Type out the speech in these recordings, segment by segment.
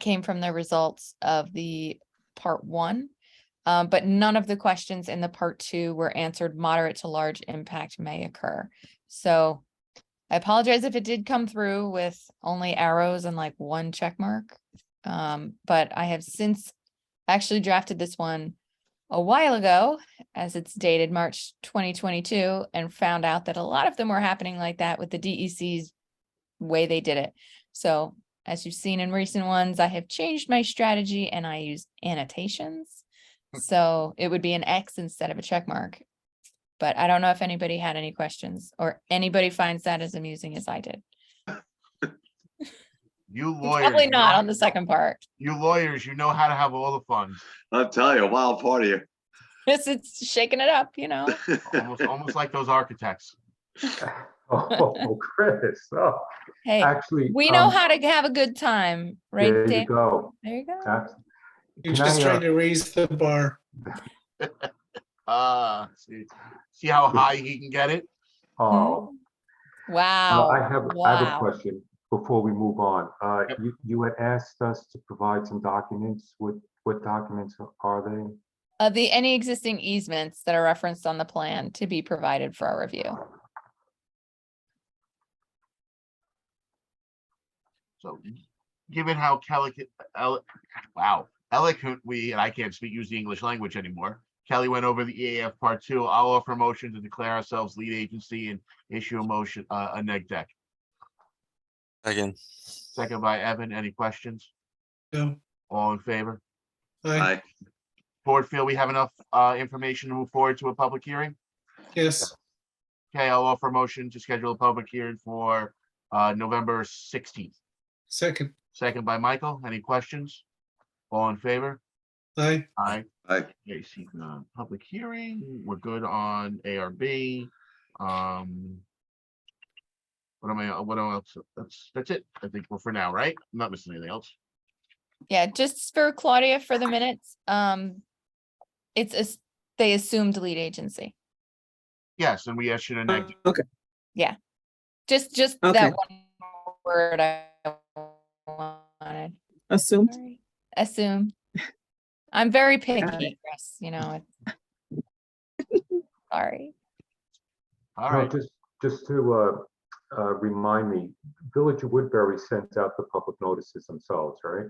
came from the results of the part one. Um, but none of the questions in the part two were answered. Moderate to large impact may occur. So I apologize if it did come through with only arrows and like one check mark. Um, but I have since actually drafted this one a while ago as it's dated March 2022 and found out that a lot of them were happening like that with the DEC's way they did it. So as you've seen in recent ones, I have changed my strategy and I use annotations. Hmm. So it would be an X instead of a check mark. But I don't know if anybody had any questions or anybody finds that as amusing as I did. You lawyers. Probably you not know- on the second part. You lawyers, you know how to have all the fun, I'll tell you, a wild party. This is shaking it up, you know? almost, almost like those architects. Oh, Chris, oh, Hey, actually. we know um, how to have a good time, right, There you Dave? go. There you go. That's- You're Can I, just uh, trying to raise the bar. Uh, see, see how high he can get it? Oh, uh, I Hmm? Wow. have, I have wow. a question before we move on. Uh, Yep. you, you had asked us to provide some documents. What, what documents are they? Of the, any existing easements that are referenced on the plan to be provided for our review. So given how calic, el- wow, eloquent we, and I can't speak, use the English language anymore. Kelly went over the EAF part two. I'll offer a motion to declare ourselves lead agency and issue a motion, uh, a neg deck. Again. Second by Evan, any questions? No, All in favor? I, Aye. Board feel we have enough, uh, information to move forward to a public hearing? yes, Okay, I'll offer a motion to schedule a public hearing for uh November sixteenth. second, Second by Michael. Any questions? All in favor? I, Aye. Aye. Okay, see, uh, public hearing. We're good on ARB. Um. What am I, what else? That's, that's it. I think we're for now, right? I'm Not missing anything else. Yeah, just for Claudia for the minutes, um, it's, as- they assumed lead agency. Yes, and we issued a neg. Okay, Just, just Okay. that one word I wanted. assumed. Sorry. Assume. I'm very picky, Chris, you know. it- Sorry. All No, right, Just, just to, uh, uh, remind me, Village of Woodbury sent out the public notices themselves, right?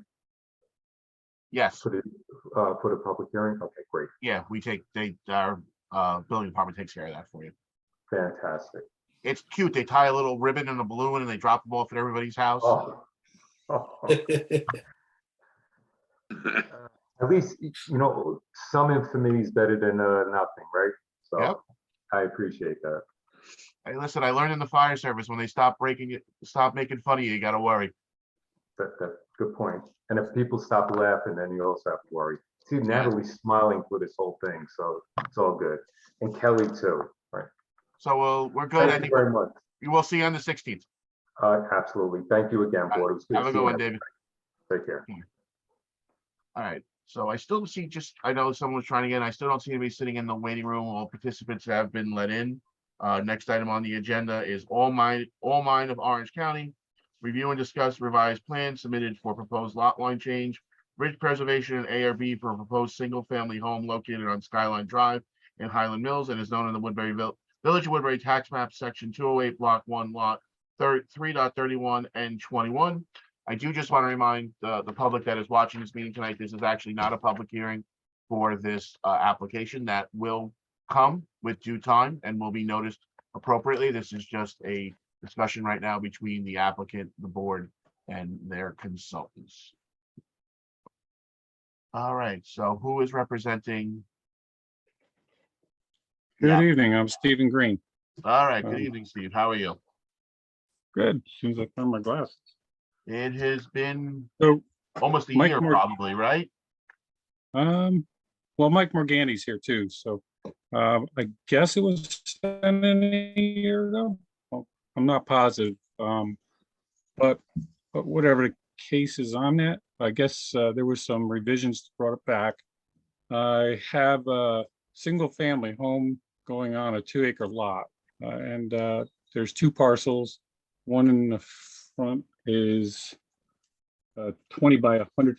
yes, For the, uh, for the public hearing? Okay, great, yeah, we take, they, our uh building department takes care of that for you. fantastic. It's cute. They tie a little ribbon and a balloon and they drop them off at everybody's house. Oh. At least, y- you know, some infamy is better than uh, nothing, right? Yep. So I appreciate that. Hey, listen, I learned in the fire service, when they stop breaking it, stop making fun of you, you gotta worry. That, that, good point. And if people stop laughing, then you also have to worry. See, Natalie's smiling through this whole thing, so it's all good. And Kelly too, right? So, well, we're good. I Thank you think very much. you will see you on the sixteenth. Uh, Absolutely. Thank you again, board. It was good Have a to see good one, you. David. Take care. All right, so I still see just, I know someone's trying again. I still don't see anybody sitting in the waiting room. All participants have been let in. Uh, next item on the agenda is all mine, all mine of Orange County. Review and discuss revised plan submitted for proposed lot line change, bridge preservation and ARB for a proposed single-family home located on Skyline Drive in Highland Mills and is known in the Woodbury Vill- Village of Woodbury Tax Map, Section two oh eight, Block one, Lot thirty, three dot thirty-one and twenty-one. I do just want to remind uh, the, the public that is watching this meeting tonight, this is actually not a public hearing for this, uh, application that will come with due time and will be noticed appropriately. This is just a discussion right now between the applicant, the board, and their consultants. All right, so who is representing? Yeah. Good evening, I'm Stephen Green. All right, good Um, evening, Steve. How are you? Good, seems like I found my glasses. It has been So, almost a Mike year Mor- probably, right? um, well, Mike Morgani's here too, so, um, I guess it was sent in a year ago. Well, I'm not positive, um, but, but whatever the case is on that, I guess, uh, there was some revisions brought it back. I have a single-family home going on a two-acre lot, uh, and, uh, there's two parcels. One in the front is uh, uh, twenty by a hundred